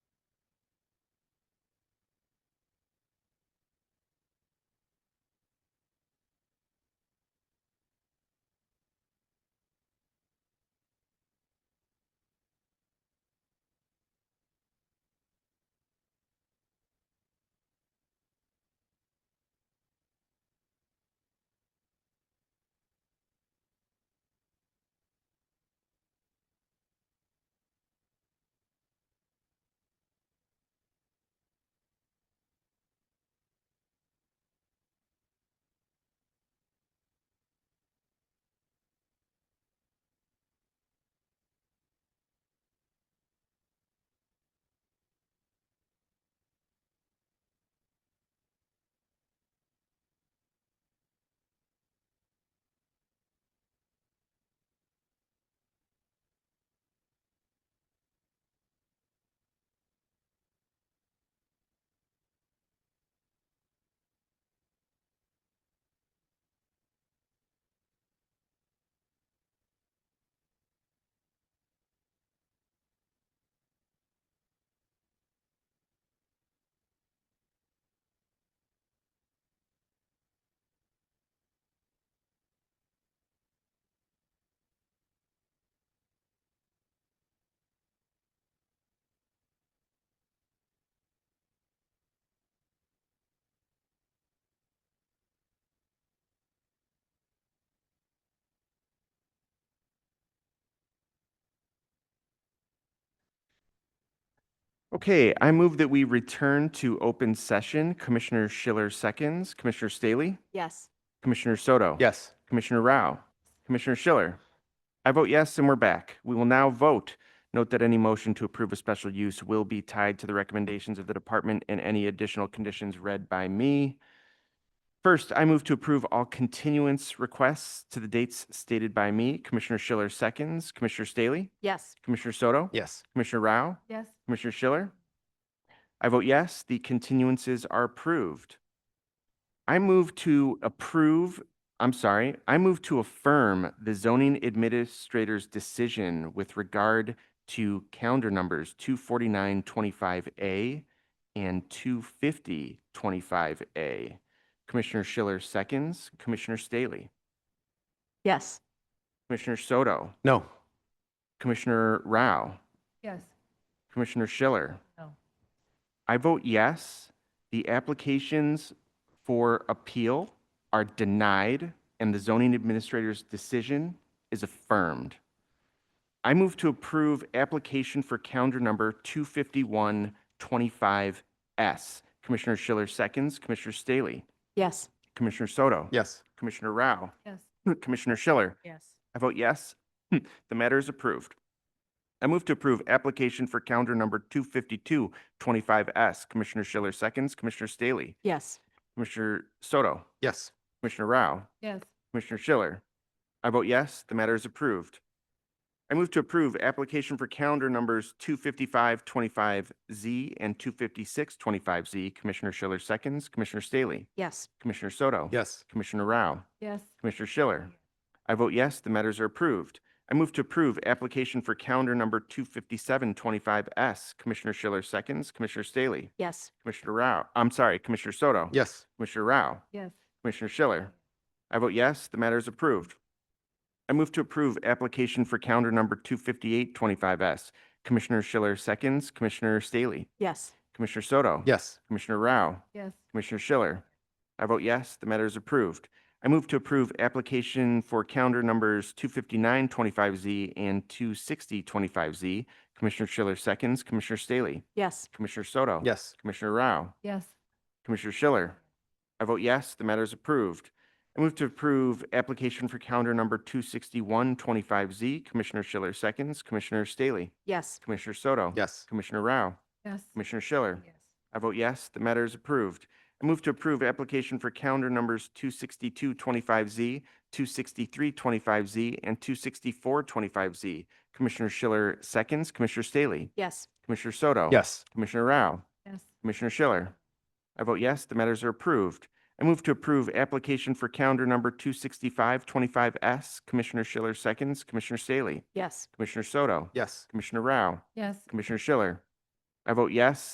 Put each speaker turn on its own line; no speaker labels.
Okay, I move that we return to open session. Commissioner Schiller seconds, Commissioner Staley,
Yes.
Commissioner Soto.
Yes.
Commissioner Rao, Commissioner Schiller. I vote yes, and we're back. We will now vote. Note that any motion to approve a special use will be tied to the recommendations of the department and any additional conditions read by me. First, I move to approve all continuance requests to the dates stated by me. Commissioner Schiller seconds, Commissioner Staley,
Yes.
Commissioner Soto.
Yes.
Commissioner Rao,
Yes.
Commissioner Schiller? I vote yes, the continuances are approved. I move to approve, I'm sorry, I move to affirm the zoning administrator's decision with regard to calendar numbers 24925A and 25025A. Commissioner Schiller seconds, Commissioner Staley,
Yes.
Commissioner Soto,
No.
Commissioner Rao.
Yes.
Commissioner Schiller?
No.
I vote yes. The applications for appeal are denied, and the zoning administrator's decision is affirmed. I move to approve application for calendar number 25125S. Commissioner Schiller seconds, Commissioner Staley,
Yes.
Commissioner Soto,
Yes.
Commissioner Rao,
Yes.
Commissioner Schiller.
Yes.
I vote yes. Hmm, The matter is approved. I move to approve application for calendar number 25225S. Commissioner Schiller seconds, Commissioner Staley,
Yes.
Commissioner Soto,
Yes.
Commissioner Rao,
Yes.
Commissioner Schiller. I vote yes, the matter is approved. I move to approve application for calendar numbers 25525Z and 25625Z. Commissioner Schiller seconds, Commissioner Staley,
Yes.
Commissioner Soto,
Yes.
Commissioner Rao,
Yes.
Commissioner Schiller. I vote yes, the matters are approved. I move to approve application for calendar number 25725S. Commissioner Schiller seconds, Commissioner Staley,
Yes.
Commissioner Rao, I'm sorry, Commissioner Soto.
Yes.
Commissioner Rao,
Yes.
Commissioner Schiller. I vote yes, the matter is approved. I move to approve application for calendar number 25825S. Commissioner Schiller seconds, Commissioner Staley,
Yes.
Commissioner Soto.
Yes.
Commissioner Rao,
Yes.
Commissioner Schiller. I vote yes, the matter is approved. I move to approve application for calendar numbers 25925Z and 26025Z. Commissioner Schiller seconds, Commissioner Staley,
Yes.
Commissioner Soto.
Yes.
Commissioner Rao,
Yes.
Commissioner Schiller. I vote yes, the matter is approved. I move to approve application for calendar number 26125Z. Commissioner Schiller seconds, Commissioner Staley,
Yes.
Commissioner Soto.
Yes.
Commissioner Rao,
Yes.
Commissioner Schiller.
Yes.
I vote yes, the matter is approved. I move to approve application for calendar numbers 26225Z, 26325Z, and 26425Z. Commissioner Schiller seconds, Commissioner Staley,
Yes.
Commissioner Soto.
Yes.
Commissioner Rao,
Yes.
Commissioner Schiller. I vote yes, the matters are approved. I move to approve application for calendar number 26525S. Commissioner Schiller seconds, Commissioner Staley,
Yes.
Commissioner Soto.
Yes.
Commissioner Rao,
Yes.
Commissioner Schiller. I vote yes,